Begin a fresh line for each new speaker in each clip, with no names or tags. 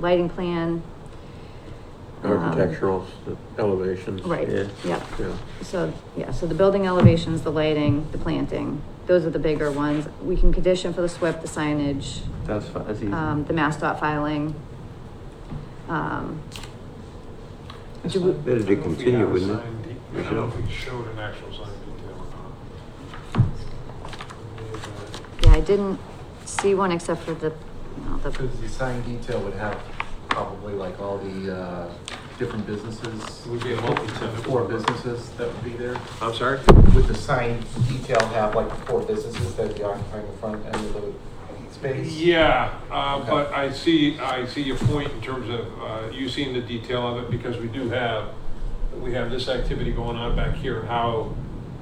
lighting plan. um,
Architectural uh, elevations.
Right,
Yeah.
yep.
Yeah.
So, yeah, so the building elevations, the lighting, the planting, those are the bigger ones. We can condition for the SWIP, the signage,
That's fine, that's easy.
um, the mass dot filing. Um,
That's
Do we-
fine.
Better to
I don't know if we
continue,
have a
wouldn't it?
sign de-
We
I don't know if
should.
we showed an actual sign detail or
yeah, I didn't see one except for the, no, the,
Because the sign detail would have probably like all the, uh, different businesses.
It would be a multi-tenant.
Four businesses that would be there.
I'm sorry?
Would the sign detail have like the four businesses that would be occupying the front end of the space?
Yeah, uh,
Okay.
but I see, I see your point in terms of, uh, you seeing the detail of it, because we do have, we have this activity going on back here, how,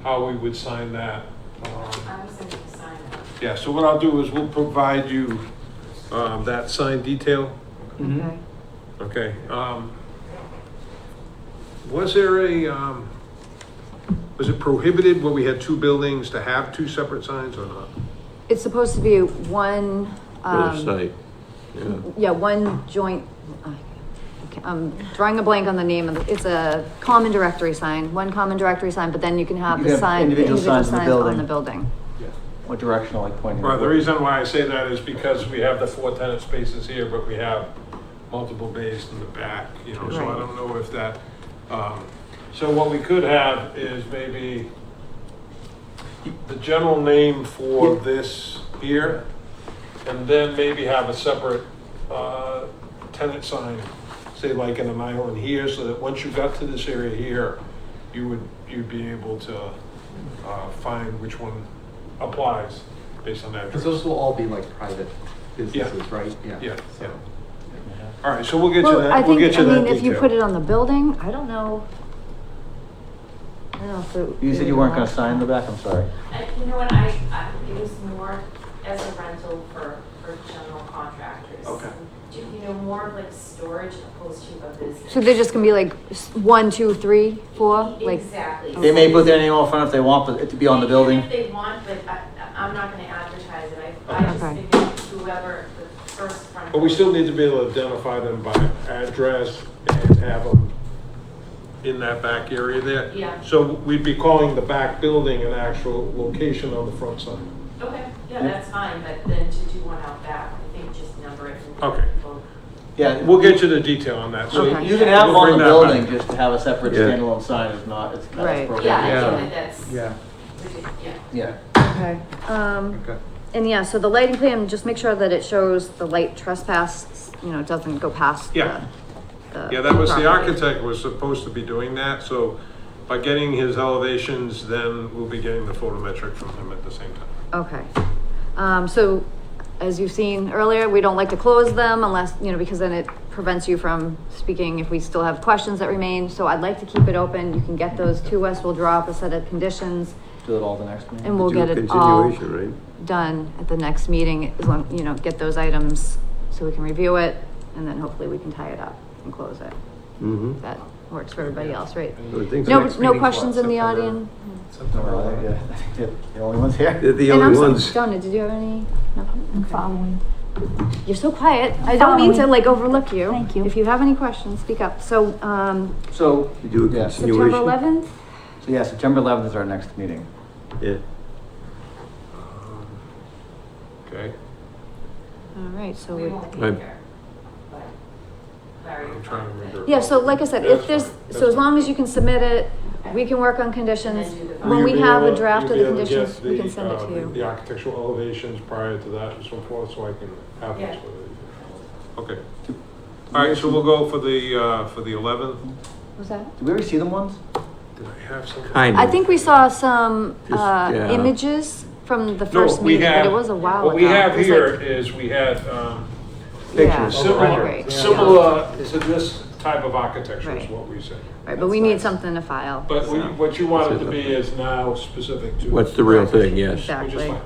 how we would sign that. Um,
I was thinking sign up.
Yeah, so what I'll do is we'll provide you, um, that sign detail,
Mhm.
okay? Um, Was there a, um, was it prohibited when we had two buildings to have two separate signs or not?
it's supposed to be one,
For
um.
the site, yeah.
yeah, one joint, I- I'm drawing a blank on the name of, the- it's a common directory sign, one common directory sign, but then you can have
You
the
can have
sign, the
individual
individual
signs in the
signs on
building.
the building.
What directional, like pointing?
Well, the reason why I say that is because we have the four tenant spaces here, but we have multiple bays in the back, you know, so I
Right.
don't know if that, um, so what we could have is maybe the general name for this here, and then maybe have a separate, uh, tenant sign, say like in an island here, so that once you got to this area here, you would, you'd be able to, uh, find which one applies based on that.
Because those will all be like private businesses, right?
Yeah,
so-
yeah. All right, so we'll get you
Well, I
that, we'll
think-
get you
I
that
mean, if you put it
detail.
on the building, I don't know. I don't know if it.
You said you weren't gonna sign the back, I'm sorry.
I- You know what, I, I, it was more as a rental for, for general contractors.
Okay.
Do you know, more of like storage opposed to a business.
So they're just gonna be like s- one, two, three, four, like,
Exactly.
They may put their name on front if they want, but it to be on the
They can
building.
If they want, but I, I'm not gonna advertise it, I, I just
Okay.
figured whoever, the first front.
But we still need to be able to identify them by address and have them in that back area there.
Yeah.
So we'd be calling the back building an actual location on the front side.
Okay, yeah, that's fine, but then to do one out back, I think just number it. and-
Okay.
Yeah.
We'll get you the detail on that, so.
Okay.
You can have them on the
We'll bring that back.
building, just to have a separate
Yeah.
standalone sign is not, it's not
Right.
appropriate.
Yeah, I
Yeah.
think that that's,
Yeah,
yeah.
Yeah.
okay, um.
okay.
And yeah, so the lighting plan, just make sure that it shows the light trespass, you know, doesn't go past
Yeah.
the. the
Yeah, that was, the
property.
architect was supposed to be doing that, so by getting his elevations, then we'll be getting the photometric from him at the same time.
Okay, um, so as you've seen earlier, we don't like to close them unless, you know, because then it prevents you from speaking if we still have questions that remain. So I'd like to keep it open. You can get those to us. We'll draw up a set of conditions
Do it all the next meeting.
and we'll
Do a
get it all
Continuation, right?
done at the next meeting. As long, you know, get those items so we can review it and then hopefully we can tie it up and close it.
Mm-hmm.
That works for everybody else, right?
I would think
No,
so.
next
no
meeting's
questions
what,
in the
September?
audience?
September
No, I-
11th.
yeah, I think they're The only ones here.
They're the
And I'm
only
sorry,
ones.
Donna, did you have any?
I'm
No? Okay.
following.
You're so quiet. I don't mean to
Following.
like overlook you.
Thank you.
If you have any questions, speak up. So, um,
So,
You do a
yeah, so
continuation.
September eleventh?
yeah, September eleventh is our next meeting.
Yeah.
Okay,
All right, so
We
we,
won't be
Right.
here, but Larry.
I'm trying to remember.
yeah, so like I said, if
That's
there's,
fine.
so as long as you can submit it,
Okay.
we can work on
And
conditions.
then do the-
When
Will
we
you be
have a
able-
draft of
you'll
the
be able to
conditions,
get
we
the,
can send it to
uh, The
you.
architectural elevations prior to that and so forth, so I can have this
Yeah.
with you. Okay. All right, so we'll go for the, uh, for the 11th.
Was that?
Did we ever see them once?
Did I have something?
Kind
I think we saw some,
Just,
uh,
yeah.
images from the
No,
first
we
meeting, but
have-
it was a while ago.
What we have
It was
here
like-
is we had, um,
Yeah,
pictures.
similar,
right,
similar uh, to this type of architecture is
Right.
what we said.
Right, but we need something to file.
But we-
so.
what you want it to be is now specific to.
What's the real thing, yes.
Which is
Exactly.
fine.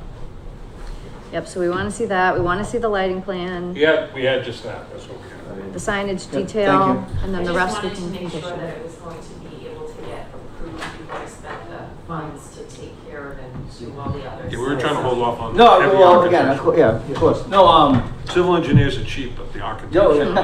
Yep, so we wanna see that, we wanna see the lighting plan,
We had, we had just that, that's what we had.
the signage
Yep, thank
detail,
you.
and then the rest we can
I just wanted to make sure that
condition.
it was going to be able to get approved before I spent the funds to take care of and do all the others.
Yeah, we were trying to hold off on.
No,
heavy
well, again, of
architecture.
cour- yeah, of course. No, um,
Civil engineers are cheap, but the architecture.
Joe,